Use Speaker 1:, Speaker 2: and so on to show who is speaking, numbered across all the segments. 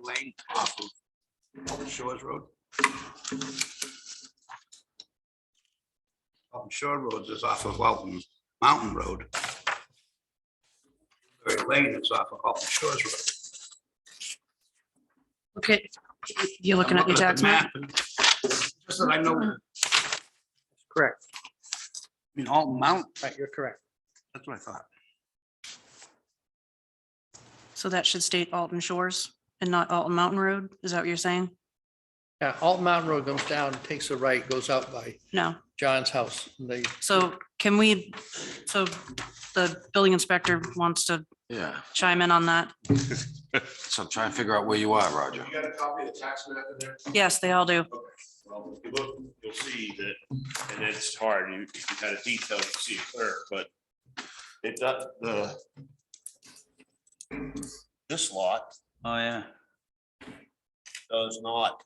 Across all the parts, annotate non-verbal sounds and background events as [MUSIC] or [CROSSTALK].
Speaker 1: Lane off of Shores Road. Off of Shore Road is off of Walton Mountain Road. Very Lane is off of Walton Shores Road.
Speaker 2: Okay, you're looking at
Speaker 1: I'm
Speaker 2: your tax map?
Speaker 1: the Just that I know, I
Speaker 3: Correct.
Speaker 1: mean, Alton Mount,
Speaker 3: Right, you're correct.
Speaker 1: that's what I thought.
Speaker 2: So that should state Alton Shores and not Alton Mountain Road? Is that what you're saying?
Speaker 3: Yeah, Alton Mountain Road goes down, takes a right, goes out by
Speaker 2: No.
Speaker 3: John's house. and They,
Speaker 2: So can we, so the building inspector wants to
Speaker 4: Yeah,
Speaker 2: chime in on that?
Speaker 4: so try and figure out where you are, Roger.
Speaker 5: You got a copy of the tax map in there?
Speaker 2: Yes, they all do.
Speaker 5: Well, if you look, you'll see that, and it's hard, you, if you had a detail, you see it clear, but it does, the this lot
Speaker 1: Oh, yeah.
Speaker 5: does not.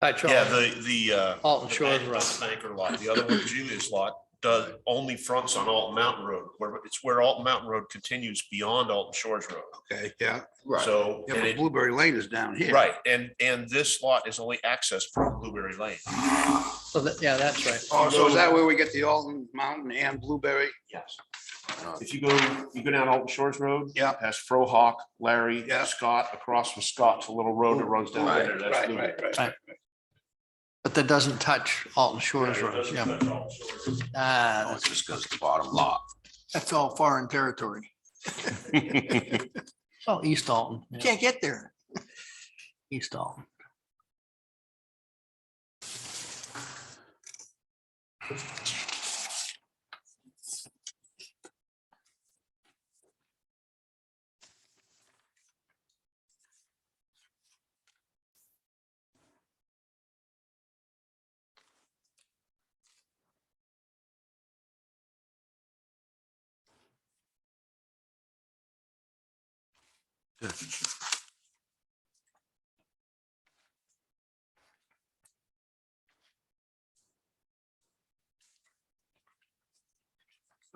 Speaker 3: by
Speaker 5: Yeah,
Speaker 3: Charles,
Speaker 5: the, the, uh,
Speaker 3: Alton Shores
Speaker 5: the
Speaker 3: Road.
Speaker 5: Banker lot, the other one, Julius lot, does, only fronts on Alton Mountain Road, where, it's where Alton Mountain Road continues beyond Alton Shores Road.
Speaker 1: Okay, yeah.
Speaker 5: So,
Speaker 1: Yeah,
Speaker 5: and
Speaker 1: but
Speaker 5: it-
Speaker 1: Blueberry Lane is down here.
Speaker 5: right, and, and this lot is only accessed from Blueberry Lane.
Speaker 3: So that, yeah, that's right.
Speaker 1: Oh, so is that where we get the Alton Mountain and Blueberry?
Speaker 5: Yes.
Speaker 4: Uh,
Speaker 5: If you go, you go down Alton Shores Road.
Speaker 1: Yeah.
Speaker 5: Past Frohawk, Larry,
Speaker 1: Yeah.
Speaker 5: Scott, across from Scott to Little Road that runs down
Speaker 1: Right,
Speaker 5: there. That's
Speaker 1: right,
Speaker 5: Blue-
Speaker 1: right, right.
Speaker 3: But that doesn't touch Alton Shores Road. Yeah. Ah,
Speaker 4: no,
Speaker 3: that's-
Speaker 4: It just goes to the bottom lot.
Speaker 6: That's all foreign territory.
Speaker 3: Oh, East Alton. yeah,
Speaker 6: Can't get there.
Speaker 3: [LAUGHS] East Alton.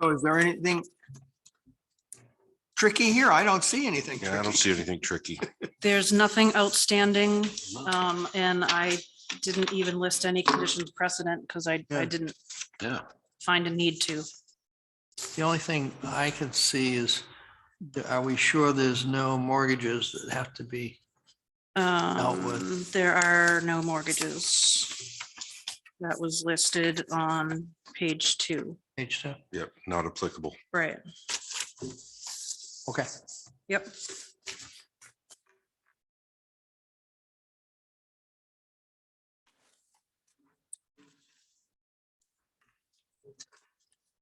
Speaker 6: So is there anything tricky here? I don't see anything
Speaker 4: Yeah, I don't
Speaker 6: tricky.
Speaker 4: see anything tricky.
Speaker 2: There's nothing outstanding,
Speaker 3: Oh.
Speaker 2: um, and I didn't even list any conditions precedent because I, I
Speaker 6: Yeah.
Speaker 2: didn't
Speaker 4: Yeah.
Speaker 2: find a need to.
Speaker 3: The only thing I could see is, are we sure there's no mortgages that have to be? Outwood.
Speaker 2: Um, there are no mortgages. That was listed on page two,
Speaker 3: Page two.
Speaker 4: Yep, not applicable.
Speaker 2: right?
Speaker 3: Okay.
Speaker 2: Yep.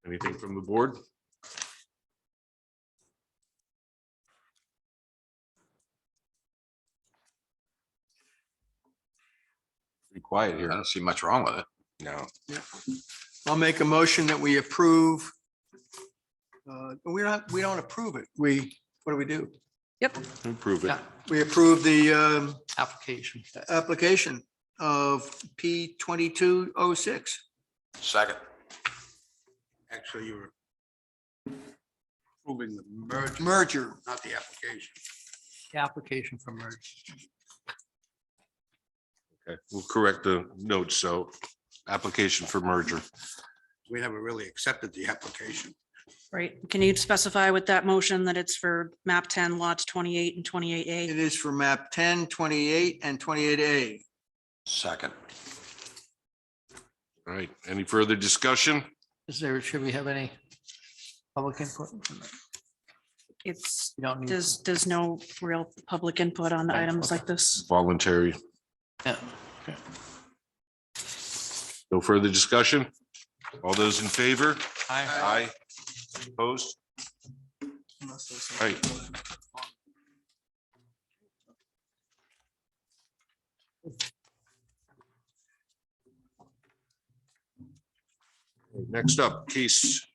Speaker 4: Anything from the board? Pretty quiet here. I don't see much wrong with it. No.
Speaker 6: I'll make a motion that we approve. uh, We're not, we don't approve it. We, what do we do?
Speaker 4: Improve it.
Speaker 3: Yeah,
Speaker 6: We approve the um,
Speaker 3: Application.
Speaker 6: application of P twenty-two oh six.
Speaker 4: Second.
Speaker 1: Actually, you were proving the merge,
Speaker 6: Merger.
Speaker 1: not the application.
Speaker 3: The Application for merge.
Speaker 4: Okay, we'll correct the notes. So application for merger.
Speaker 1: We never really accepted the application.
Speaker 2: Right, can you specify with that motion that it's for map ten lots twenty-eight and twenty-eight A?
Speaker 6: It is for map 10, 28, and twenty-eight A.
Speaker 4: Second. All right, any further discussion?
Speaker 3: Is there, should we have any public input?
Speaker 2: It's,
Speaker 3: You don't need.
Speaker 2: there's, there's no real public input on
Speaker 3: Mm. Right,
Speaker 2: items
Speaker 3: okay.
Speaker 2: like this.
Speaker 4: Voluntary.
Speaker 3: Yeah.
Speaker 4: No further discussion? All those in favor?
Speaker 3: Aye.
Speaker 4: Aye. Opposed? All right, next up, case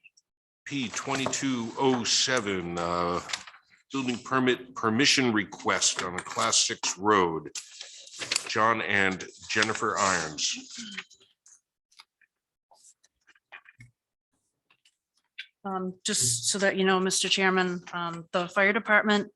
Speaker 4: P twenty-two oh seven, uh, building permit, permission request on a class six road. John and Jennifer Irons.
Speaker 2: Um, just so that you know, Mr. Chairman, um, the fire department